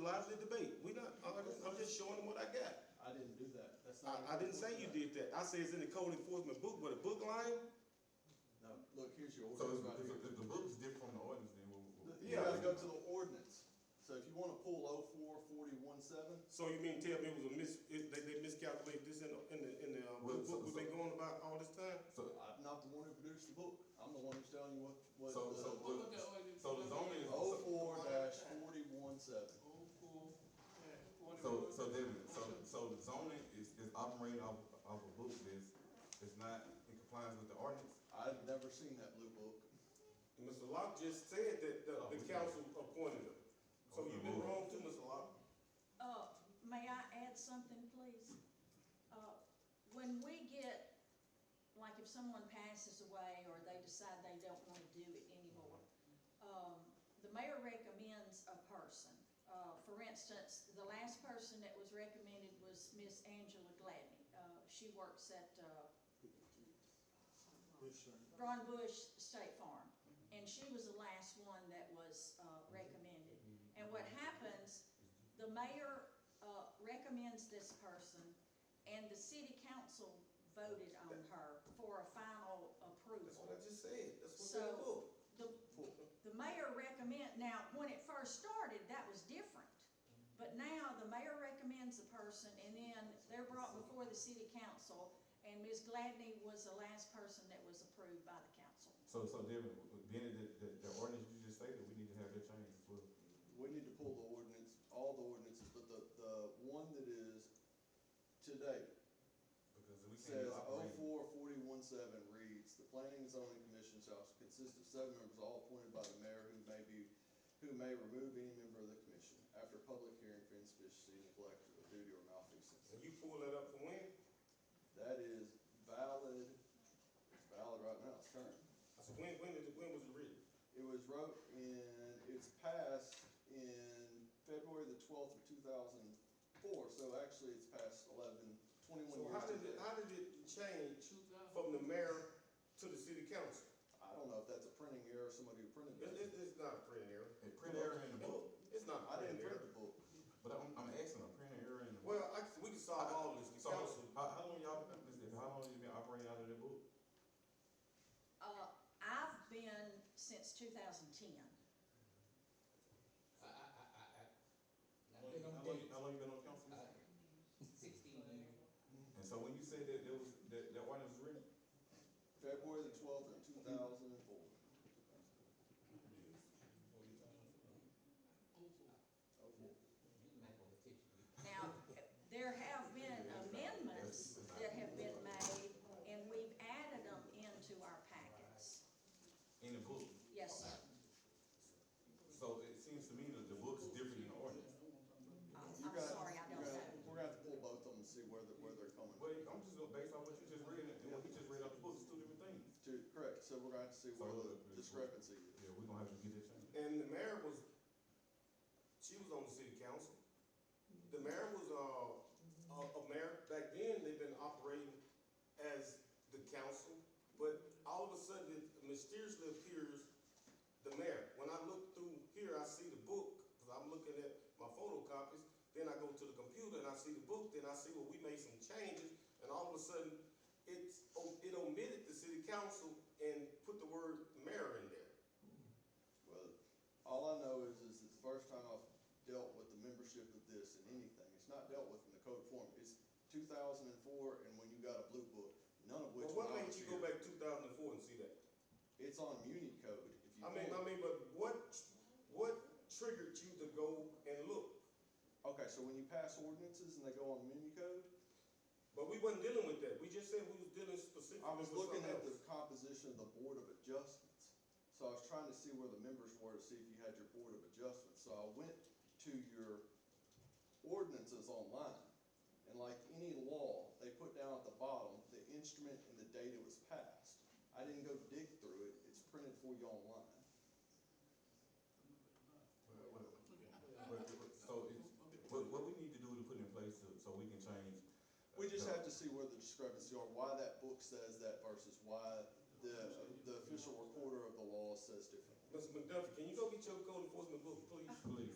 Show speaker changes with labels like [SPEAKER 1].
[SPEAKER 1] lively debate. We not, I'm I'm just showing them what I got.
[SPEAKER 2] I didn't do that. That's not.
[SPEAKER 1] I, I didn't say you did that. I said it's in the code enforcement book, but a book line?
[SPEAKER 2] No, look, here's your
[SPEAKER 3] So
[SPEAKER 2] ordinance right
[SPEAKER 3] if, if,
[SPEAKER 2] here.
[SPEAKER 3] if the book's different from the ordinance, then we'll. we'll-
[SPEAKER 2] You gotta go to the ordinance. So if you wanna pull oh four forty-one seven,
[SPEAKER 1] So you mean tell me it was a mis, it- they, they miscalculated this in the, in the, in the, uh,
[SPEAKER 3] Well,
[SPEAKER 1] book
[SPEAKER 3] so-
[SPEAKER 1] we've been going about all this time?
[SPEAKER 3] So,
[SPEAKER 2] I'm not the one who produced the book. I'm the one who's telling you what, what,
[SPEAKER 3] so, so,
[SPEAKER 2] uh,
[SPEAKER 4] look at
[SPEAKER 3] the-
[SPEAKER 4] ordinance.
[SPEAKER 3] so the zoning is.
[SPEAKER 2] oh
[SPEAKER 3] so-
[SPEAKER 2] four dash forty-one seven.
[SPEAKER 4] Oh, cool. Yeah, what
[SPEAKER 3] So,
[SPEAKER 4] about-
[SPEAKER 3] so David, so, so the zoning is, is operating off, off a book that's, that's not in compliance with the ordinance?
[SPEAKER 2] I've never seen that blue book.
[SPEAKER 1] Mr. Locke just said that
[SPEAKER 3] Oh,
[SPEAKER 1] the, the
[SPEAKER 3] we-
[SPEAKER 1] council appointed him. So you've been wrong too, Mr. Locke.
[SPEAKER 5] Uh, may I add something, please? Uh, when we get, like if someone passes away or they decide they don't wanna do it anymore, um, the mayor recommends a person. Uh, for instance, the last person that was recommended was Miss Angela Gladney. Uh, she works at, uh, Braun Bush State Farm, and she was the last one that was uh, recommended. And what happens, the mayor uh, recommends this person, and the city council voted on her for a
[SPEAKER 1] That's
[SPEAKER 5] final
[SPEAKER 1] what I
[SPEAKER 5] approval.
[SPEAKER 1] just said. That's what's in the
[SPEAKER 5] So-
[SPEAKER 1] book.
[SPEAKER 5] The, the mayor recommend, now, when it first started, that was different. But now, the mayor recommends the person, and then they're brought before the city council, and Ms. Gladney was the last person that was approved by the council.
[SPEAKER 3] So, so David, being that the, the ordinance you just stated, we need to have that changed as well.
[SPEAKER 2] We need to pull the ordinance, all the ordinances, but the, the one that is today
[SPEAKER 3] Because we can't
[SPEAKER 2] says
[SPEAKER 3] just
[SPEAKER 2] oh
[SPEAKER 3] operate.
[SPEAKER 2] four forty-one seven reads, the planning and zoning commission shall consist of seven members, all appointed by the mayor who may be, who may remove any member of the commission after public hearing for insufficiency, neglect, or duty or malfeasance.
[SPEAKER 1] And you pull that up for when?
[SPEAKER 2] That is valid, it's valid right now, it's current.
[SPEAKER 1] I said, when, when did, it- when was it written?
[SPEAKER 2] It was wrote in, it's passed in February the twelfth of two thousand and four, so actually it's passed eleven,
[SPEAKER 1] So
[SPEAKER 2] twenty-one years
[SPEAKER 1] how did it,
[SPEAKER 2] today.
[SPEAKER 1] how did it change
[SPEAKER 4] Two thousand.
[SPEAKER 1] from the mayor to the city council?
[SPEAKER 2] I don't know if that's a printing error, or somebody who printed
[SPEAKER 1] It, it,
[SPEAKER 2] it.
[SPEAKER 1] it's not a print error.
[SPEAKER 3] A print error in the book,
[SPEAKER 1] It's not a
[SPEAKER 2] I
[SPEAKER 1] print
[SPEAKER 2] didn't
[SPEAKER 1] error.
[SPEAKER 2] print the book.
[SPEAKER 3] but I'm, I'm asking, a print error in the book.
[SPEAKER 1] Well, I, we can solve all this, the
[SPEAKER 3] So,
[SPEAKER 1] council.
[SPEAKER 3] how, how long y'all, been- is it- how long you been operating out of the book?
[SPEAKER 5] Uh, I've been since two thousand ten.
[SPEAKER 6] I, I, I, I, I.
[SPEAKER 3] How
[SPEAKER 6] I
[SPEAKER 3] long, how
[SPEAKER 6] think I'm
[SPEAKER 3] long-
[SPEAKER 6] dead.
[SPEAKER 3] how long you been on council?
[SPEAKER 6] Uh, Sixteen years.
[SPEAKER 3] And so when you said that, there was, that, that ordinance was written,
[SPEAKER 2] February the twelfth of two thousand and four.
[SPEAKER 6] You might want to teach me.
[SPEAKER 5] Now, there have been amendments that have been made, and we've added them into our packets.
[SPEAKER 3] in the book,
[SPEAKER 5] Yes, sir.
[SPEAKER 3] so it seems to me that the book's different than the ordinance.
[SPEAKER 5] I'm I'm sorry, I don't know.
[SPEAKER 2] We're gonna have to pull both of them and see where they're, where they're coming
[SPEAKER 3] Well, I'm just going based on what you just read, and what you just read off the book, it's two different things.
[SPEAKER 2] to, correct, so we're gonna have to see where the discrepancy is.
[SPEAKER 3] Yeah, we're gonna have to get that changed.
[SPEAKER 1] And the mayor was, she was on the city council. The mayor was, uh, a, a mayor, back then, they've been operating as the council, but all of a sudden, it mysteriously appears the mayor. When I look through here, I see the book, because I'm looking at my photocopies, then I go to the computer and I see the book, then I see where we made some changes, and all of a sudden, it's, it omitted the city council and put the word mayor in there.
[SPEAKER 2] Well, all I know is, is it's the first time I've dealt with the membership of this in anything. It's not dealt with in the code form. It's two thousand and four and when you got a blue book, none of which
[SPEAKER 1] Well, what
[SPEAKER 2] when I
[SPEAKER 1] made
[SPEAKER 2] was
[SPEAKER 1] you go
[SPEAKER 2] here.
[SPEAKER 1] back two thousand and four and see that?
[SPEAKER 2] It's on Muni code, if you.
[SPEAKER 1] I mean, I
[SPEAKER 2] pull-
[SPEAKER 1] mean, but what, what triggered you to go and look?
[SPEAKER 2] Okay, so when you pass ordinances and they go on Muni code,
[SPEAKER 1] But we wasn't dealing with that, we just said we was dealing
[SPEAKER 2] I
[SPEAKER 1] specifically with
[SPEAKER 2] was looking
[SPEAKER 1] something
[SPEAKER 2] at the
[SPEAKER 1] else.
[SPEAKER 2] composition of the Board of Adjustments, so I was trying to see where the members were to see if you had your Board of Adjustments. So I went to your ordinances online, and like any law, they put down at the bottom the instrument and the date it was passed. I didn't go dig through it, it's printed for you online.
[SPEAKER 3] Well, well, well, well, So it's, what, what we need to do to put in place so, so we can change.
[SPEAKER 2] We just have to see where the discrepancies are, why that book says that versus why the, the official recorder of the law says different.
[SPEAKER 1] Mr. McDuffie, can you go get your code enforcement book, please?
[SPEAKER 2] Uh,
[SPEAKER 3] Please.